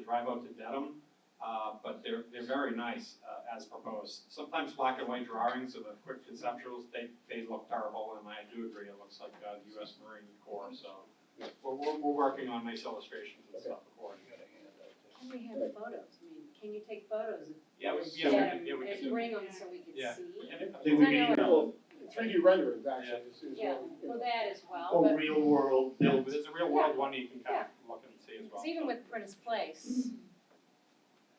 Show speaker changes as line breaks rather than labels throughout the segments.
drive out to Dedham, uh, but they're, they're very nice, uh, as proposed. Sometimes black and white drawings of the quick conceptuals, they, they look terrible, and I do agree, it looks like, uh, the US Marine Corps, so. We're, we're, we're working on nice illustrations and stuff accordingly.
Can we have photos? I mean, can you take photos of
Yeah, we,
the
yeah, we can,
shed
yeah, we can
and
do.
bring them so we can see?
Yeah. and
I
if-
think we um, can email
Three D renderings actually, is, is
Yeah,
what, you
well,
know.
that as
Oh,
well,
a
but,
real world
No,
built.
but there's a real world one you can kind of look and see as
'cause
well.
even with Prentice Place,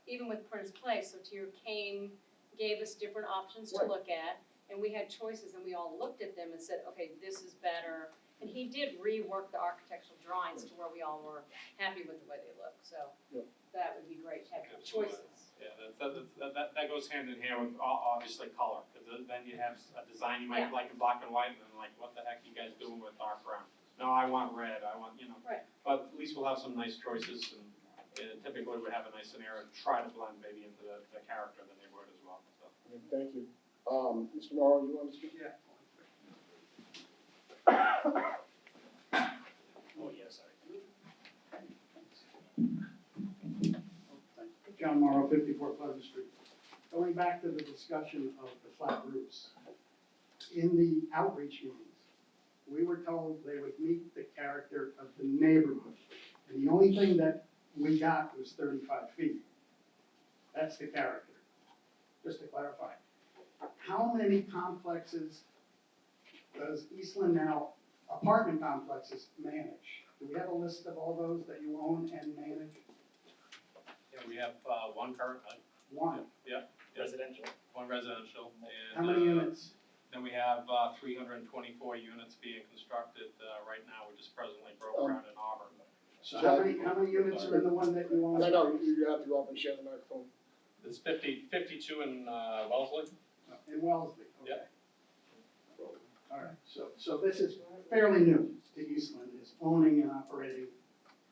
even with Prentice Place, so Tier came, gave us different options to
Right.
look at, and we had choices, and we all looked at them and said, okay, this is better. And he did rework the architectural drawings to where we all were happy with the way they look, so
Yeah.
that would be great to have
Absolutely.
choices.
Yeah, that, that, that- that, that goes hand in hand with o- obviously color, because then you have a design you
Yeah.
might like in black and white, and then like, what the heck you guys doing with dark brown? No, I want red, I want, you know.
Right.
But at least we'll have some nice choices, and and typically we have a nice scenario, to try to blend maybe into the, the character of the neighborhood as well, so.
Thank you. Um, Mr. Morrow, you want to speak?
Yeah. Oh, yeah, sorry. John Morrow, fifty-four Pleasant Street. Going back to the discussion of the flat roofs. In the outreach meetings, we were told they would meet the character of the neighborhood. And the only thing that we got was thirty-five feet. That's the character, just to clarify. How many complexes does Eastland now apartment complexes manage? Do we have a list of all those that you own and manage?
Yeah, we have, uh, one currently,
One.
Residential. One residential, and. uh,
How many units?
Then we have uh, 324 units being constructed uh, right now, we just presently broke
Um,
ground in Auburn.
So how many, how many units are in the one that you own?
No, no, you, you have to go up and share the microphone.
There's 50, 52 in uh, Wellesley.
In Wellesley, okay.
Yep.
All right, so, so this is fairly new to Eastland, is owning and operating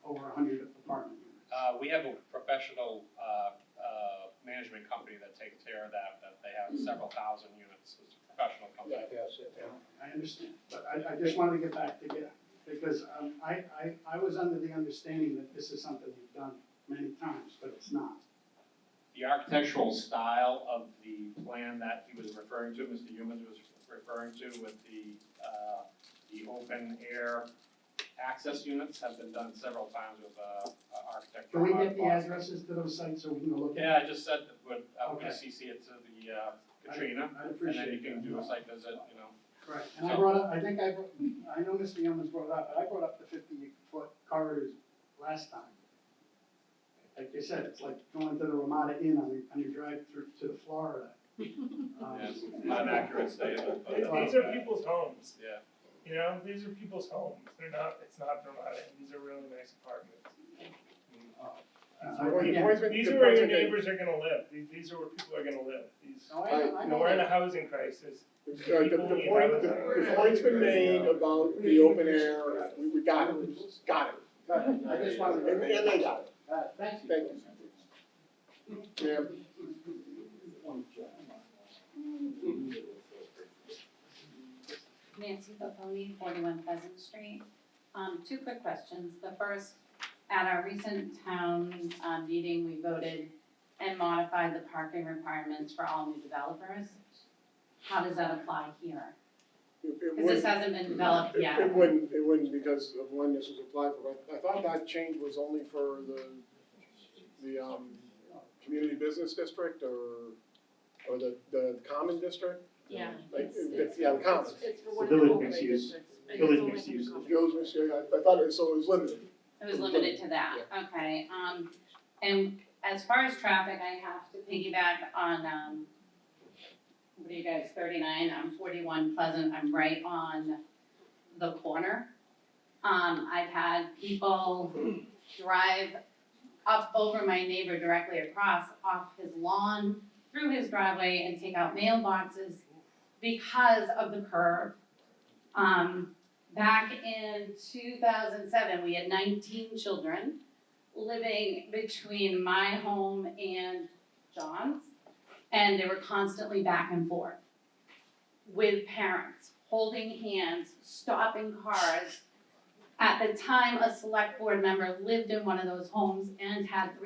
over hundred apartment units.
Uh, we have a professional, uh, uh, management company that takes care of that, that they have several thousand units, it's a professional company.
that's it.
I understand, but I, I just wanted to get back to get, because um, I, I, I was under the understanding that this is something you've done many times, but it's not.
The architectural style of the plan that he was referring to, Mr. Humans was referring to with the, uh, the open air access units have been done several times with, uh, architecture.
Can we get the addresses to those sites so we can go look at?
Yeah, I just said, that would- I'm gonna
Okay.
CC it to the, uh,
I-
Katrina,
I'd
and then
appreciate
you
it.
can do a site visit, you know.
Right, and I brought up, I think I, brought- I know Mr. Yeomans brought it up, but I brought up the fifty-foot corridors last time. Like you said, it's like going to the Ramada Inn on your, on your drive through to Florida. Um,
Yes, not an accurate statement, but.
These are people's homes,
Yeah,
you know, these are people's homes, they're not, it's not dramatic, these are really nice apartments.
uh,
Well, the
again,
point-
These
the
are where
point
your
is that-
neighbors are gonna live, these, these are where people are gonna live, these,
So Oh, I, I
you
know
know, we're in a
that,
housing crisis.
Uh, The, the point, the, the point's been made about the open air, we, we got it, got it.
but I just wanted
And, and
to,
they got it,
uh, thank you.
thank you. Ma'am,
Nancy Popoli, forty-one Pleasant Street. Um, two quick questions. The first, at our recent town, uh, meeting, we voted and modified the parking requirements for all new developers. How does that apply here?
it- it
Because this
would-
hasn't been developed
It-
yet.
It wouldn't, it wouldn't because of when this was applied for, I, I thought that change was only for the, the, um, community business district or, or the, the common district,
Yeah.
like, it- yeah, the common.
It's for
one of the Village overlay mixed use. Village mixed use.
Those, was- yeah, I, I thought it, so it was limited,
It was limited to that, okay, um, and as far as traffic, I have to piggyback on, um, what are you guys, thirty-nine, I'm forty-one Pleasant, I'm right on the corner. Um, I've had people drive up over my neighbor directly across, off his lawn, through his driveway and take out mailboxes because of the curve. Um, Back in two thousand seven, we had nineteen children living between my home and John's. And they were constantly back and forth with parents, holding hands, stopping cars. At the time, a select board member lived in one of those homes and had three